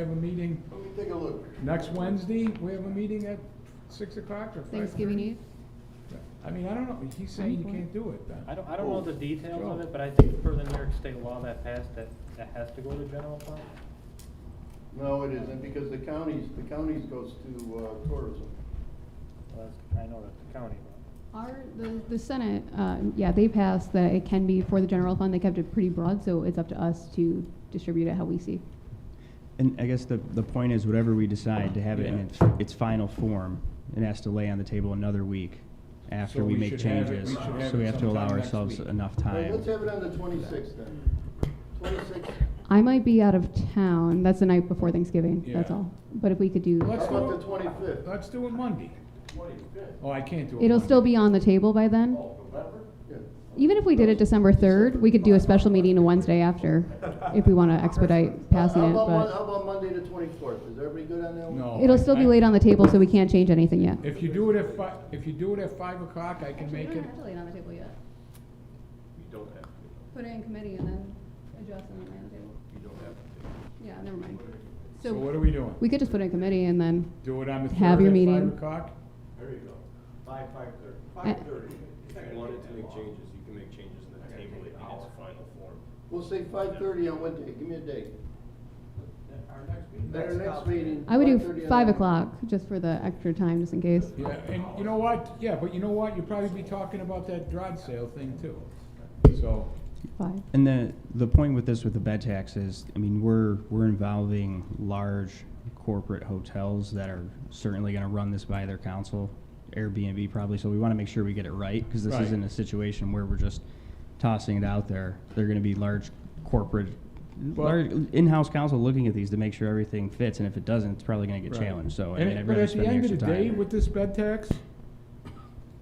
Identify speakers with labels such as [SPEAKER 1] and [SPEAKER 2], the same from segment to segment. [SPEAKER 1] We have a meeting
[SPEAKER 2] Let me take a look.
[SPEAKER 1] next Wednesday, we have a meeting at six o'clock or five.
[SPEAKER 3] Thanksgiving Eve?
[SPEAKER 1] I mean, I don't know, he's saying you can't do it
[SPEAKER 4] I
[SPEAKER 1] then.
[SPEAKER 4] don't, I don't know
[SPEAKER 2] Oh,
[SPEAKER 4] the details of
[SPEAKER 1] sure.
[SPEAKER 4] it, but I think per the New York State law that passed, that, that has to go to general fund.
[SPEAKER 2] No, it isn't, because the counties, the counties goes to uh, tourism.
[SPEAKER 4] Well, that's, I know that's the county law.
[SPEAKER 3] Our, the, the Senate, um, yeah, they passed that it can be for the general fund. They kept it pretty broad, so it's up to us to distribute it how we see.
[SPEAKER 5] And I guess the, the point is, whatever we decide to have it in
[SPEAKER 1] Yeah.
[SPEAKER 5] its, its final form, it has to lay on the table another week
[SPEAKER 1] So
[SPEAKER 5] after we
[SPEAKER 1] we
[SPEAKER 5] make
[SPEAKER 1] should have it-
[SPEAKER 5] changes.
[SPEAKER 1] we should have
[SPEAKER 5] So we
[SPEAKER 1] it
[SPEAKER 5] have to allow
[SPEAKER 1] sometime next
[SPEAKER 5] ourselves
[SPEAKER 1] week.
[SPEAKER 5] enough
[SPEAKER 2] Well,
[SPEAKER 5] time.
[SPEAKER 2] Let's have it on the twenty-sixth then. Twenty-sixth,
[SPEAKER 3] I might be out of town. That's the night before Thanksgiving. That's
[SPEAKER 1] Yeah.
[SPEAKER 3] all. But if we could do,
[SPEAKER 1] Let's
[SPEAKER 2] how
[SPEAKER 1] do
[SPEAKER 2] about
[SPEAKER 1] it,
[SPEAKER 2] the twenty-fifth?
[SPEAKER 1] let's do it Monday.
[SPEAKER 2] Twenty-fifth?
[SPEAKER 1] Oh, I can't do it.
[SPEAKER 3] it'll
[SPEAKER 1] Monday.
[SPEAKER 3] still be on the table by then.
[SPEAKER 2] November? Yeah.
[SPEAKER 3] Even if we did it December third, we could do a special meeting a Wednesday after, if we want to expedite passing
[SPEAKER 2] How
[SPEAKER 3] it.
[SPEAKER 2] about, Mon- how
[SPEAKER 3] But
[SPEAKER 2] about Monday the twenty-fourth? Is everybody good on that one?
[SPEAKER 1] No.
[SPEAKER 3] it'll still be laid on the table, so we can't change anything yet.
[SPEAKER 1] If you do it at fi, if you do it at five o'clock, I can make it,
[SPEAKER 3] lay it on the table yet.
[SPEAKER 6] You don't have to,
[SPEAKER 3] Put it in committee and then adjust and lay on the table.
[SPEAKER 6] you don't have to.
[SPEAKER 3] Yeah, never mind.
[SPEAKER 1] so what are we doing?
[SPEAKER 3] We could just put it in committee and then,
[SPEAKER 1] Do it on the third
[SPEAKER 3] Have your
[SPEAKER 1] at five
[SPEAKER 3] meeting.
[SPEAKER 1] o'clock?
[SPEAKER 6] There you go. Five, five thirty.
[SPEAKER 3] I-
[SPEAKER 6] thirty. If you wanted to make changes, you can make changes in the table in its final form.
[SPEAKER 2] We'll say five-thirty on Wednesday, give me a date. Our next meeting.
[SPEAKER 3] I would do
[SPEAKER 2] 5:30 on
[SPEAKER 3] five
[SPEAKER 2] Wednesday.
[SPEAKER 3] o'clock, just for the extra time, just in case.
[SPEAKER 1] Yeah, and you know what? Yeah, but you know what? You'll probably be talking about that garage sale thing too. So,
[SPEAKER 3] Five.
[SPEAKER 5] And the, the point with this, with the bed tax is, I mean, we're, we're involving large corporate hotels that are certainly gonna run this by their council, Airbnb probably, so we wanna make sure we get it right, cause this
[SPEAKER 1] Right.
[SPEAKER 5] isn't a situation where we're just tossing it out there. They're gonna be large corporate,
[SPEAKER 1] But-
[SPEAKER 5] large, in-house council looking at these to make sure everything fits, and if it doesn't, it's probably gonna get
[SPEAKER 1] Right.
[SPEAKER 5] challenged, so. Oh, I
[SPEAKER 1] And
[SPEAKER 5] mean,
[SPEAKER 1] it-
[SPEAKER 5] I'd
[SPEAKER 1] but
[SPEAKER 5] rather
[SPEAKER 1] at the
[SPEAKER 5] spend
[SPEAKER 1] end of the
[SPEAKER 5] extra
[SPEAKER 1] day,
[SPEAKER 5] time.
[SPEAKER 1] with this bed tax,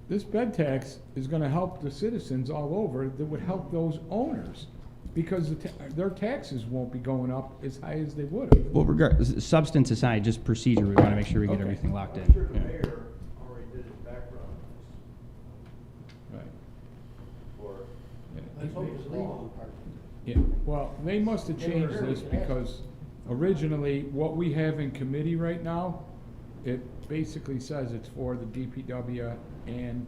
[SPEAKER 1] this bed tax is gonna help the citizens all over, that would help those owners, because the ta- their taxes won't be going up as high as they would have.
[SPEAKER 5] Well, regard, substance aside, just procedure, we wanna make sure we get
[SPEAKER 1] Okay.
[SPEAKER 5] everything locked in.
[SPEAKER 7] I'm sure the
[SPEAKER 5] yeah.
[SPEAKER 7] mayor already did his background
[SPEAKER 1] Right.
[SPEAKER 7] for
[SPEAKER 1] Yeah.
[SPEAKER 2] Let's hope it's legal.
[SPEAKER 1] Yeah, well, they must have changed this because originally, what we have in committee right now, it basically says it's for the DPW and,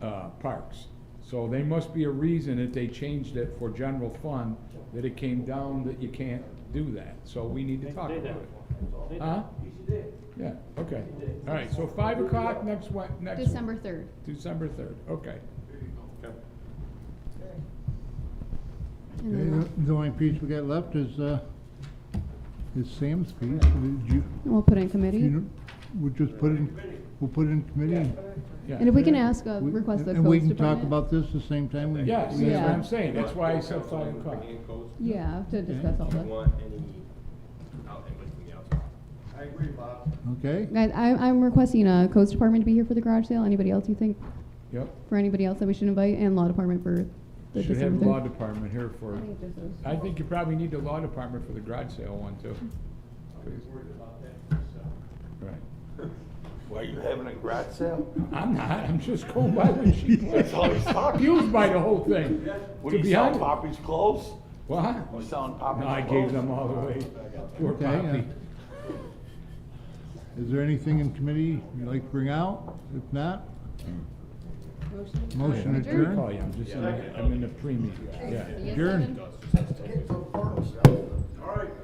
[SPEAKER 1] uh, parks. So there must be a reason that they changed it for general fund, that it came down that you can't do that, so we need to
[SPEAKER 4] They-
[SPEAKER 1] talk
[SPEAKER 4] they
[SPEAKER 1] about
[SPEAKER 4] do.
[SPEAKER 1] it.
[SPEAKER 4] They do.
[SPEAKER 1] Huh? Yeah, okay, all right, so five o'clock next Wed, next.
[SPEAKER 3] December third.
[SPEAKER 1] December third, okay.
[SPEAKER 6] Okay.
[SPEAKER 8] Okay, The only piece we got left is, uh, is Sam's piece. Did you-
[SPEAKER 3] We'll put it in committee.
[SPEAKER 8] you know, We'll just put it in, we'll put it in committee.
[SPEAKER 1] Yeah.
[SPEAKER 3] And if we can ask, uh,
[SPEAKER 8] We-
[SPEAKER 3] request the
[SPEAKER 8] And we
[SPEAKER 3] codes
[SPEAKER 8] can talk
[SPEAKER 3] department.
[SPEAKER 8] about this the same time we.
[SPEAKER 1] Yes, that's
[SPEAKER 8] we-
[SPEAKER 1] what
[SPEAKER 3] Yeah.
[SPEAKER 1] I'm saying, that's why I said five o'clock.
[SPEAKER 6] Bringing in codes.
[SPEAKER 3] Yeah, to discuss all
[SPEAKER 6] If you
[SPEAKER 3] this.
[SPEAKER 6] want any out input from the outside.
[SPEAKER 7] I agree, Bob.
[SPEAKER 8] Okay?
[SPEAKER 3] Guys, I, I'm requesting a codes department to be here for the garage sale. Anybody else you think,
[SPEAKER 1] Yep.
[SPEAKER 3] for anybody else that we should invite, and law department for the
[SPEAKER 1] Should
[SPEAKER 3] December
[SPEAKER 1] have
[SPEAKER 3] third.
[SPEAKER 1] law department here for,
[SPEAKER 3] I think just those-
[SPEAKER 1] I think you probably need the law department for the garage sale one too.
[SPEAKER 7] I was worried about that myself.
[SPEAKER 1] Right.
[SPEAKER 6] Why are you having a garage sale?
[SPEAKER 1] I'm not, I'm just going by what she
[SPEAKER 6] That's all he's talking.
[SPEAKER 1] Confused by the whole thing. To be honest.
[SPEAKER 6] Poppy's clothes?
[SPEAKER 1] What?
[SPEAKER 6] You selling
[SPEAKER 1] No, I gave them all away. Poor
[SPEAKER 8] Okay, uh,
[SPEAKER 1] Poppy.
[SPEAKER 8] Is there anything in committee you'd like to bring out? If not? Motion
[SPEAKER 1] What do you call
[SPEAKER 8] adjourned?
[SPEAKER 1] you? I'm just, in the- I'm in the pre-meeting, yeah.
[SPEAKER 8] Adjourned.
[SPEAKER 6] All right.